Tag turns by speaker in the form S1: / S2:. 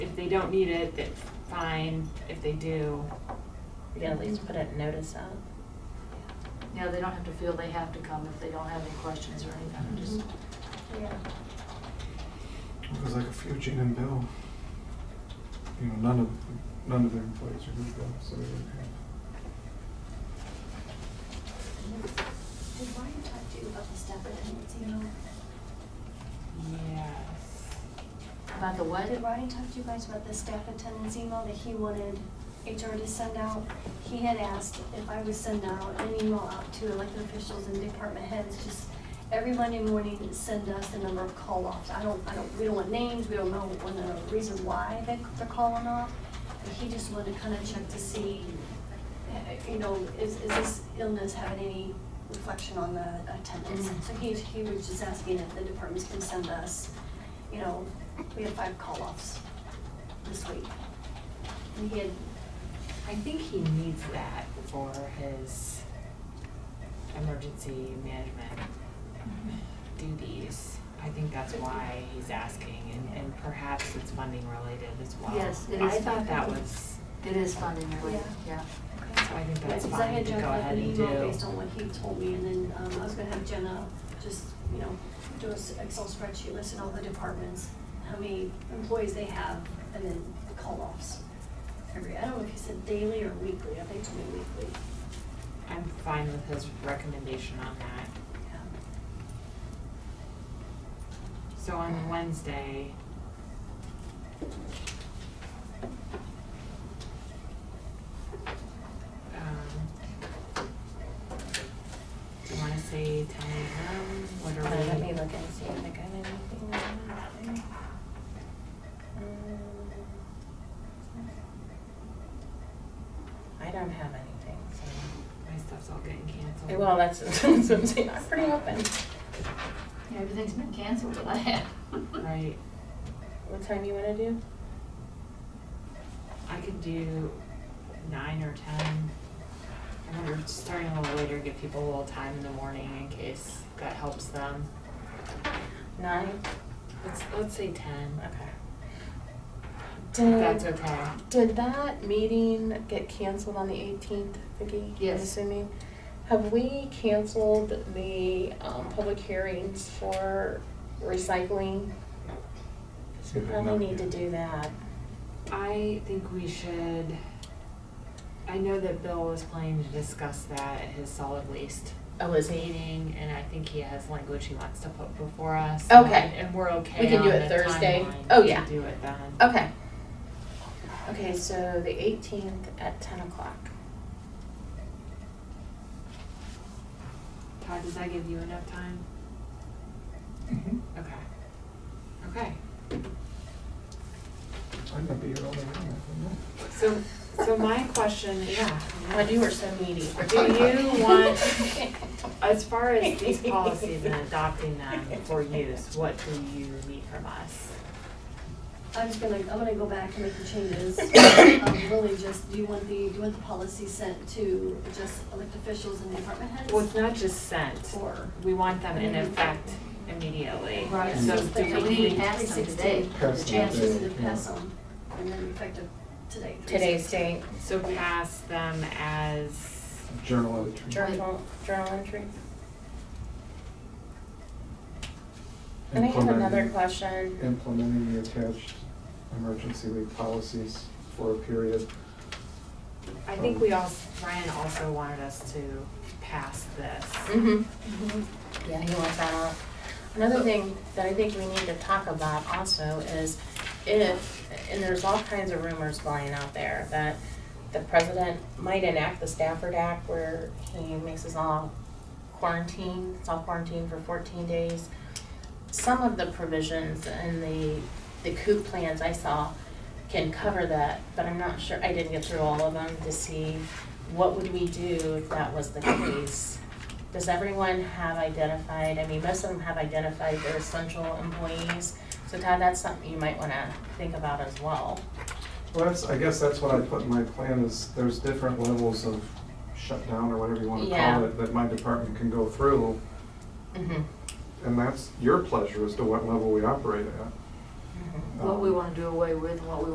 S1: don't need it, it's fine. If they do,
S2: You can at least put a notice out.
S3: Yeah, they don't have to feel they have to come if they don't have any questions or anything, just.
S2: Yeah.
S4: It was like a few Gene and Bill. You know, none of none of their employees are good though, so they didn't have.
S5: Did Ryan talk to you about the step attendance email?
S1: yes.
S3: About the what?
S5: Did Ryan talk to you guys about the staff attendance email that he wanted HR to send out? He had asked if I would send out an email out to elected officials and department heads, just every Monday morning, send us the number of call-offs. I don't, I don't, we don't want names, we don't know when the reason why they- they're calling off. But he just wanted to kind of check to see, eh, you know, is, is this illness having any reflection on the attendance?
S3: Mhm.
S5: So he, he was just asking if the departments can send us you know, we had five call-offs this week. And he had,
S1: I think he needs that for his emergency management Mm-hmm. duties. I think that's why he's asking, and, and perhaps it's funding related as well.
S3: Yes, it
S1: I
S3: is
S1: thought that
S3: funding.
S1: was,
S3: It is funding related, yeah.
S1: so I think that's
S5: because I
S1: fine
S5: had
S1: to go
S5: Jenna
S1: ahead and do.
S5: an email based on what he told me, and then, um, I was gonna have Jenna just, you know, do an Excel spreadsheet, listing all the departments, how many employees they have, and then the call-offs. Every, I don't know if he said daily or weekly, I think it's only weekly.
S1: I'm fine with his recommendation on that.
S5: Yeah.
S1: So on Wednesday. um, Do you wanna say ten AM, what
S2: Uh,
S1: are
S2: Let me
S1: we,
S2: look and see if I got anything. on there. Um, I don't have anything, so.
S1: my stuff's all getting canceled.
S2: Eh, Well, that's, that's what I'm saying, I'm pretty open.
S3: Yeah, everything's been canceled that I have.
S1: Right,
S2: What time you wanna do?
S1: I could do nine or ten. I remember starting a little later, give people a little time in the morning in case that helps them.
S2: Nine?
S1: Let's, let's say ten,
S2: Okay.
S1: if
S2: Did-
S1: that's okay.
S2: Did that meeting get canceled on the eighteenth, Vicki?
S3: Yes.
S2: I'm assuming. Have we canceled the um, public hearings for recycling?
S4: See,
S2: We
S4: they're
S2: probably
S4: not
S2: need to
S4: here.
S2: do that.
S1: I think we should, I know that Bill was planning to discuss that at his solid waste
S2: Oh, is he?
S1: meeting, and I think he has language he wants to put before us.
S2: Okay.
S1: And we're okay
S2: We can do
S1: on
S2: it
S1: the
S2: Thursday.
S1: timeline
S2: Oh,
S1: to
S2: yeah. Oh.
S1: do it then.
S2: Okay. Okay, so the eighteenth at ten o'clock.
S1: Todd, does that give you enough time?
S4: Mhm.
S1: Okay. Okay,
S4: I'd not be here all day long, I don't know.
S1: so, so my question, yeah.
S2: Why do you are so needy?
S1: Do you want, as far as these policies and adopting them for use, what do you need from us?
S5: I'm just gonna, I'm gonna go back and make the changes. Um, Really just, do you want the, do you want the policy sent to just elected officials and department heads?
S1: Well, it's not just sent.
S5: Or?
S1: We want them in effect immediately.
S3: Right.
S1: So
S5: Just
S1: do
S5: the
S1: we
S3: uh, We
S1: need,
S3: passed them today, the
S4: Passed them
S5: Yeah, she
S3: chances.
S5: said to
S4: Yeah.
S5: pass them, and then effective today.
S2: Today's date,
S1: so pass them as,
S4: Journal entry.
S2: journal, journal entry. And I have
S4: Implementing-
S2: another question.
S4: Implementing the attached emergency leave policies for a period.
S1: I think we all, Ryan also wanted us to pass this.
S2: Mm-hmm. Yeah, he wants that out. Another thing that I think we need to talk about also is if, and there's all kinds of rumors flying out there, that the president might enact the Stafford Act where he makes us all quarantine, self-quarantine for fourteen days. Some of the provisions in the, the COOP plans I saw can cover that, but I'm not sure, I didn't get through all of them to see what would we do if that was the case. Does everyone have identified, I mean, most of them have identified their essential employees, so Todd, that's something you might wanna think about as well.
S4: Well, that's, I guess that's what I put in my plan is there's different levels of shutdown or whatever you want to
S2: Yeah.
S4: call it that my department can go through.
S2: Mm-hmm.
S4: And that's your pleasure as to what level we operate at.
S2: Mm-hmm.
S3: What we wanna do away with, and what we